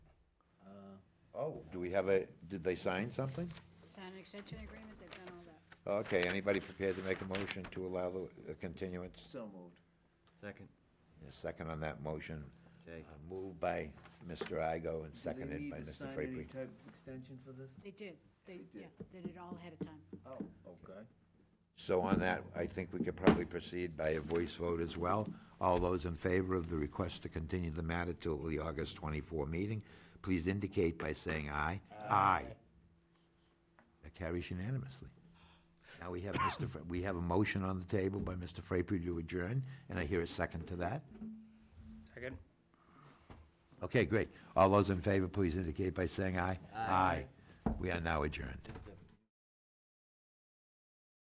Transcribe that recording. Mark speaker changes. Speaker 1: well, do we have a, did they sign something?
Speaker 2: Sign an extension agreement, they've done all that.
Speaker 1: Okay, anybody prepared to make a motion to allow the a continuance?
Speaker 3: So moved.
Speaker 4: Second,
Speaker 1: A second on that motion,
Speaker 4: Jay.
Speaker 1: uh, moved by Mr. Igo and seconded by Mr.
Speaker 3: Do they need to sign any
Speaker 1: Frapery.
Speaker 3: type of extension for this?
Speaker 2: They did, they,
Speaker 3: They did.
Speaker 2: yeah, they did it all ahead of time.
Speaker 3: Oh, okay.
Speaker 1: So on that, I think we could probably proceed by a voice vote as well. All those in favor of the request to continue the matter till the August 24 meeting, please indicate by saying aye. Aye. That carries unanimously. Now we have Mr., Fra- we have a motion on the table by Mr. Frapery to adjourn, and I hear a second to that.
Speaker 5: Second?
Speaker 1: Okay, great. All those in favor, please indicate by saying aye. Aye. We are now adjourned.